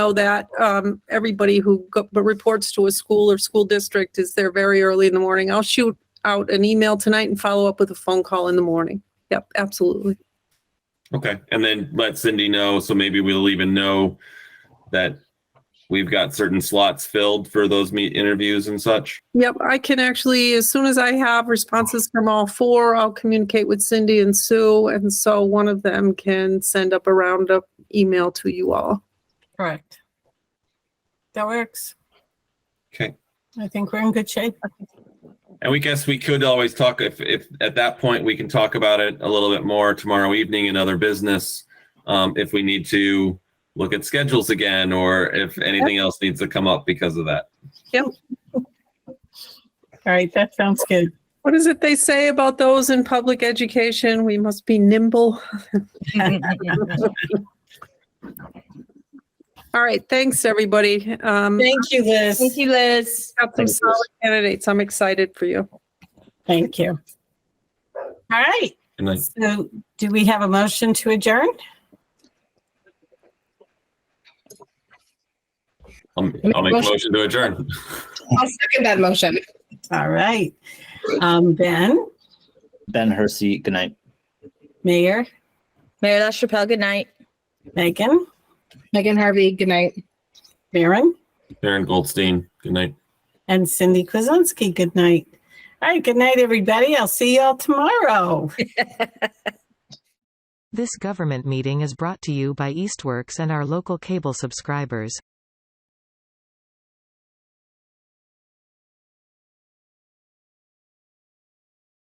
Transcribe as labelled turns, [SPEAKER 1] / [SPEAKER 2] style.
[SPEAKER 1] know that um, everybody who go- but reports to a school or school district is there very early in the morning. I'll shoot out an email tonight and follow up with a phone call in the morning. Yep, absolutely.
[SPEAKER 2] Okay, and then let Cindy know, so maybe we'll even know that we've got certain slots filled for those meet interviews and such.
[SPEAKER 1] Yep, I can actually, as soon as I have responses from all four, I'll communicate with Cindy and Sue. And so one of them can send up a roundup email to you all.
[SPEAKER 3] Correct. That works.
[SPEAKER 2] Okay.
[SPEAKER 3] I think we're in good shape.
[SPEAKER 2] And we guess we could always talk if, if at that point we can talk about it a little bit more tomorrow evening in other business. Um, if we need to look at schedules again, or if anything else needs to come up because of that.
[SPEAKER 3] All right, that sounds good.
[SPEAKER 1] What is it they say about those in public education? We must be nimble. All right, thanks, everybody. Um,
[SPEAKER 3] Thank you,
[SPEAKER 4] Thank
[SPEAKER 3] Liz.
[SPEAKER 4] you, Liz.
[SPEAKER 1] Got some
[SPEAKER 2] Thanks, Liz.
[SPEAKER 1] solid candidates. I'm excited for you.
[SPEAKER 3] Thank you. All right,
[SPEAKER 2] And then
[SPEAKER 3] so do we have a motion to adjourn?
[SPEAKER 2] I'll, I'll make a motion to adjourn.
[SPEAKER 5] I'll second that motion.
[SPEAKER 3] All right. Um, Ben,
[SPEAKER 6] Ben Hersey, good night.
[SPEAKER 3] Mayor,
[SPEAKER 4] Mayor LaChapelle, good night.
[SPEAKER 3] Megan,
[SPEAKER 5] Megan Harvey, good night.
[SPEAKER 3] Baron,
[SPEAKER 2] Aaron Goldstein, good night.
[SPEAKER 3] and Cindy Kuzensky, good night. All right, good night, everybody. I'll see y'all tomorrow.
[SPEAKER 7] This government meeting is brought to you by Eastworks and our local cable subscribers.